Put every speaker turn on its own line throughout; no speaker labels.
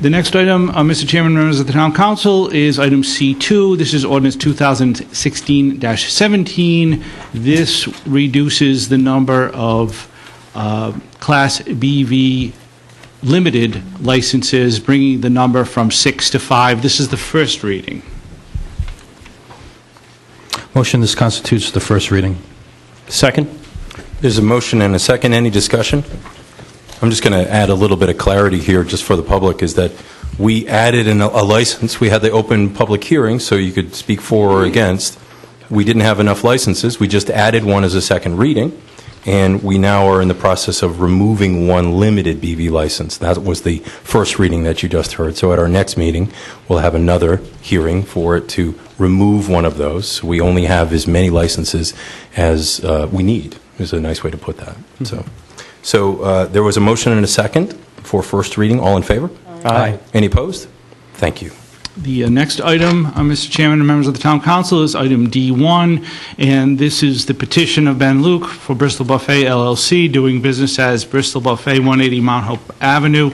The next item, uh, Mr. Chairman, members of the Town Council, is item C2. This is ordinance 2016-17. This reduces the number of uh, Class BV limited licenses, bringing the number from six to five. This is the first reading.
Motion, this constitutes the first reading.
Second?
There's a motion and a second. Any discussion? I'm just going to add a little bit of clarity here, just for the public, is that we added an- a license. We had the open public hearing, so you could speak for or against. We didn't have enough licenses. We just added one as a second reading, and we now are in the process of removing one limited BV license. That was the first reading that you just heard. So at our next meeting, we'll have another hearing for it to remove one of those. We only have as many licenses as uh, we need, is a nice way to put that. So, so uh, there was a motion and a second for first reading. All in favor?
Aye.
Any opposed? Thank you.
The uh, next item, uh, Mr. Chairman and members of the Town Council, is item D1, and this is the petition of Ben Luke for Bristol Buffet LLC, doing business as Bristol Buffet, 180 Mount Hope Avenue,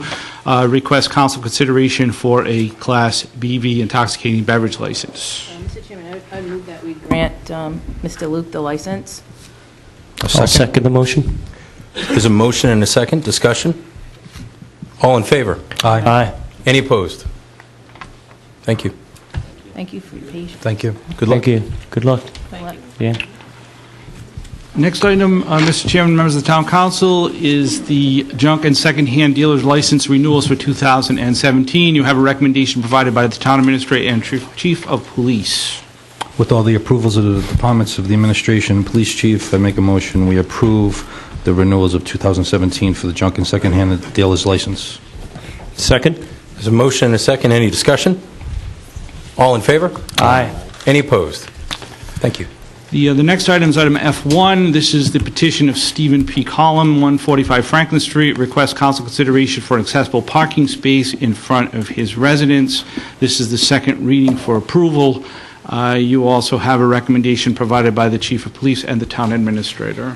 uh, request council consideration for a Class BV intoxicating beverage license.
Um, Mr. Chairman, I would- I would move that we grant um, Mr. Luke the license.
I'll second the motion.
There's a motion and a second. Discussion? All in favor?
Aye.
Any opposed? Thank you.
Thank you for your patience.
Thank you.
Good luck.
Thank you. Good luck.
Thank you.
Yeah.
Next item, uh, Mr. Chairman, members of the Town Council, is the junk and secondhand dealer's license renewals for 2017. You have a recommendation provided by the Town Administrator and Chief- Chief of Police.
With all the approvals of the departments of the administration, police chief, I make a motion, we approve the renewals of 2017 for the junk and secondhand dealer's license.
Second?
There's a motion and a second. Any discussion? All in favor?
Aye.
Any opposed? Thank you.
The, uh, the next item is item F1. This is the petition of Stephen P. Collum, 145 Franklin Street, request council consideration for an accessible parking space in front of his residence. This is the second reading for approval. Uh, You also have a recommendation provided by the chief of police and the town administrator.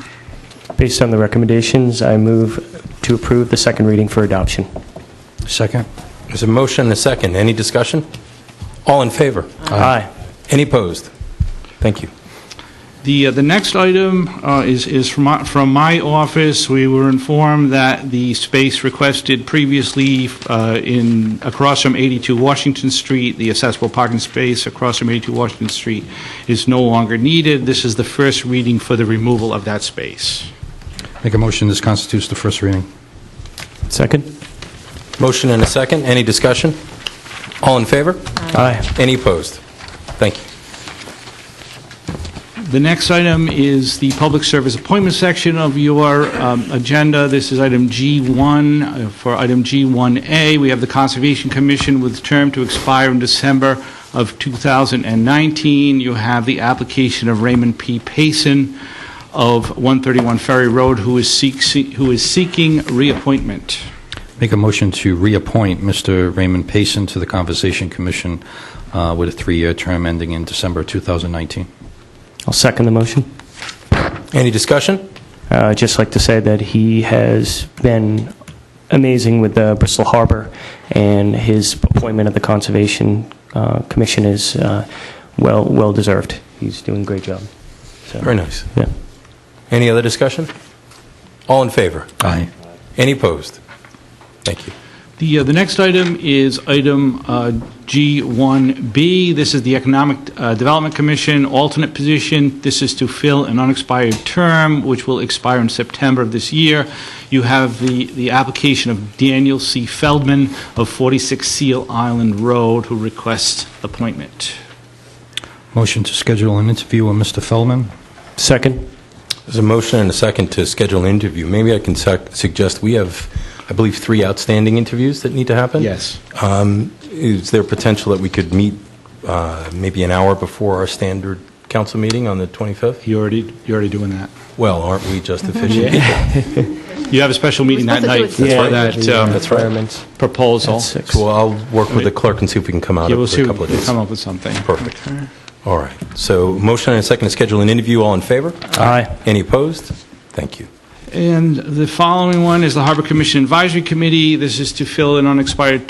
Based on the recommendations, I move to approve the second reading for adoption.
Second?
There's a motion and a second. Any discussion? All in favor?
Aye.
Any opposed? Thank you.
The, uh, the next item uh, is, is from my, from my office. We were informed that the space requested previously uh, in, across from 82 Washington Street, the accessible parking space across from 82 Washington Street is no longer needed. This is the first reading for the removal of that space.
Make a motion, this constitutes the first reading.
Second?
Motion and a second. Any discussion? All in favor?
Aye.
Any opposed? Thank you.
The next item is the public service appointment section of your um, agenda. This is item G1. Uh, For item G1A, we have the Conservation Commission with term to expire in December of 2019. You have the application of Raymond P. Payson of 131 Ferry Road, who is seek- see- who is seeking reappointment.
Make a motion to reappoint Mr. Raymond Payson to the Conversation Commission uh, with a three-year term ending in December 2019.
I'll second the motion.
Any discussion?
Uh, I'd just like to say that he has been amazing with uh, Bristol Harbor, and his appointment at the Conservation uh, Commission is uh, well well deserved. He's doing a great job. So,
Very nice.
Yeah.
Any other discussion? All in favor?
Aye.
Any opposed? Thank you.
The, uh, the next item is item uh, G1B. This is the Economic uh, Development Commission alternate position. This is to fill an unexpired term, which will expire in September of this year. You have the, the application of Daniel C. Feldman of 46 Seal Island Road, who requests appointment.
Motion to schedule an interview with Mr. Feldman.
Second?
There's a motion and a second to schedule an interview. Maybe I can sec- suggest, we have, I believe, three outstanding interviews that need to happen?
Yes.
Um, Is there potential that we could meet uh, maybe an hour before our standard council meeting on the 25th?
You already, you're already doing that.
Well, aren't we just
Mm-hmm.
efficient people?
You have a special meeting that
supposed to do
night
it
for that um,
right.
Requirements.
proposal.
That's six.
So I'll work with the clerk and see if we can come out
Yeah, we'll
of
see
a
if
couple
we
of
can
days.
come up with something.
Perfect. All right. So motion and a second to schedule an interview. All in favor?
Aye.
Any opposed? Thank you.
And the following one is the Harbor Commission Advisory Committee. This is to fill an unexpired